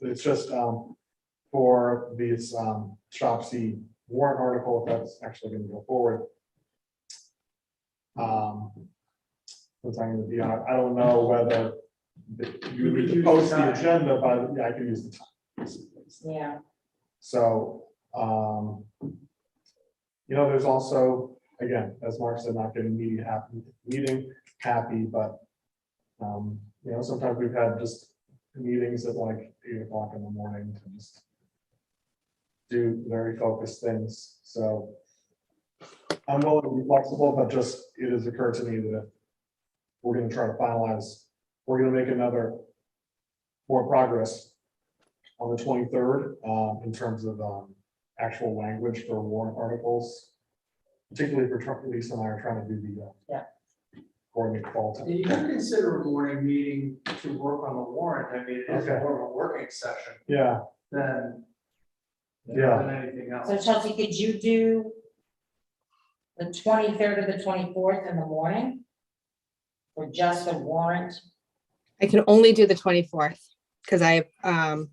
It's just, um, for these, um, shop C warrant article, if that's actually gonna go forward. Um, what's I'm gonna be on, I don't know whether the- you You could would use post the the time. agenda, but yeah, I can use the time. Yeah, So, um, you know, there's also, again, as Mark said, not getting meeting happy, meeting happy, but, um, you know, sometimes we've had just meetings at like eight o'clock in the morning to just do very focused things, so I'm willing to be flexible, but just, it has occurred to me that we're gonna try to finalize, we're gonna make another more progress on the twenty-third, um, in terms of, um, actual language for warrant articles. Particularly for Trump, Lisa and I are trying to do the, uh. Yeah. Coordinate call time. And you can consider a morning meeting to work on the warrant, I mean, it is Okay. more of a working session Yeah, than. Yeah. Than anything else. so Chelsea, could you do the twenty-third or the twenty-fourth in the morning? Or just a warrant? I can only do the twenty-fourth because I have um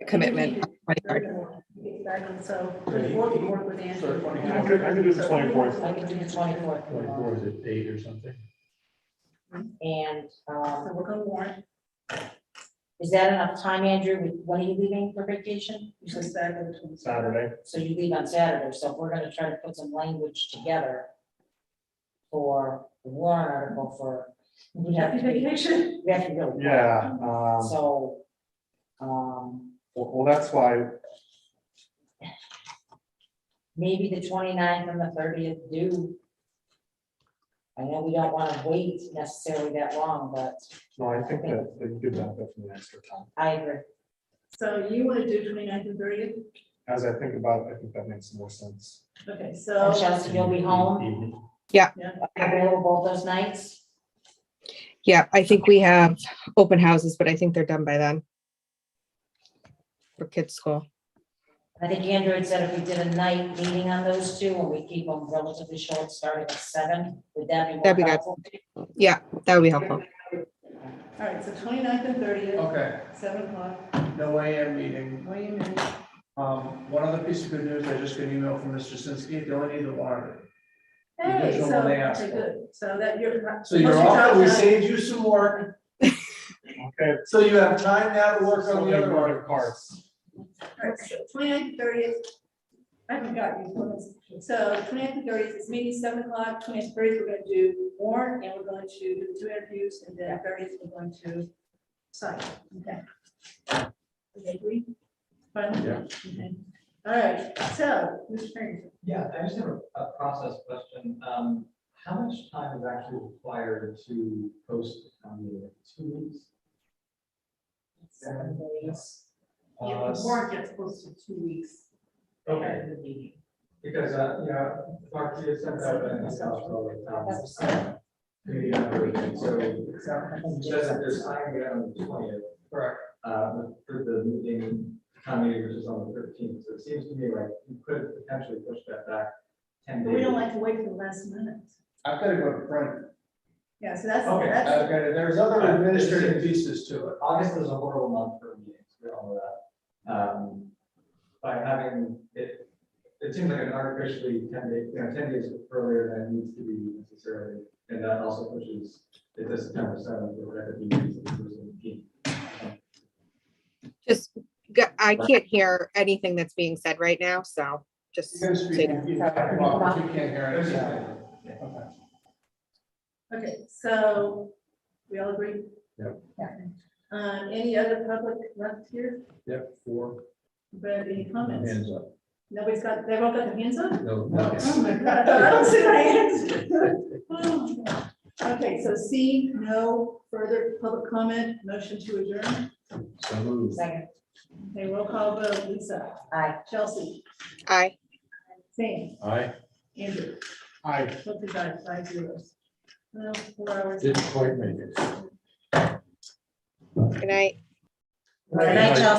a commitment. on the 23rd. Exactly, so twenty-fourth, you work with Anthony. So 24th. I could- I could do the 24th. I could do the twenty-fourth in the Or morning, is it eight or something? and, So um, we're gonna warrant, is that enough time, Andrew? When are you leaving for vacation? You so said- Saturday, the 23rd. Saturday, So you leave on Saturday, so we're gonna try to put some language together for the warrant article for, we have Happy to, we vacation. have to go. yeah, um, So, um, well, well, that's why, maybe the 29th and the thirtieth do. I know we don't wanna wait necessarily that long, but no, I think that, that you could benefit from the extra time. I agree. So you want to do 29th and thirtieth? As I think about it, I think that makes more sense. Okay, And so, Chelsea, you'll be home, Evening. available both those nights? Yeah, I think we have open houses, but I think they're done by then. For kids' school. I think Andrew had said if we did a night meeting on those two, and we keep them relatively short, starting at seven, would that be more That'd be good. helpful? That would be helpful. all right, so 29th and thirtieth, Okay, seven o'clock, no AM meeting. wait a minute. Um, one other piece of good news, I just got an email from Mr. Sinsky, they only need the warrant. Hey, Original so, one they asked okay, for. good, so that you're. So you're Must be off, time we now. saved you some work, Okay. so you have time now to work on Something the other about articles. cars. All right, so 29th, 30th. I forgot these ones. So 29th and 30th, this meeting seven o'clock, 29th and 30th, we're going to do warrant and we're going to do the two interviews and then 30th, we're going to sign. Okay. Okay, agree? Fine? Yeah. Okay. All right, so, Mr. Farrington. Yeah, I just have a- a process question. Um, How much time is actually required to post the town meeting? Two weeks? Seven days. Uh, s- gets posted two weeks. Okay, because, uh, yeah, Mark, you sent out an email to the town Uh, That's seven. committee member, and so just this time, we have on the twentieth. Correct. Uh, for the meeting, town meeting, which is on the thirteenth, so it seems to me like you could potentially push that back ten But days. we don't like to wait for the last minute. I've got to go to Frank. Yeah, so that's, Okay, that's, I've got, to- there's other Uh, administrative pieces to it. August is a horrible month for meetings, we all know that. Um, By having it, it seems like an artificially ten days, you know, ten days earlier than it needs to be necessarily. And that also pushes it to September seventh, or whatever the meeting is, the first and the eighteenth. Just, g- I can't hear anything that's being said right now, so just. You can speak, take- you can talk, Bob, if you can't hear There's anything. a- Okay. okay, so we all agree? Yep. Yeah. Um, any other public left here? Yep, four. Brad, any comments? Hands up. Nobody's got, they've all got their hands up? No, no. Oh my God, I don't see my hands. Oh, God. Okay, so C, no further public comment, motion to adjourn. So moved. Second, Okay, roll call vote, Lisa, aye. Chelsea, Aye. Sam, Aye. Andrew, Hi, both of guys, five zeros. Well, four hours. Didn't quite make it. Good night. Good night, Chelsea.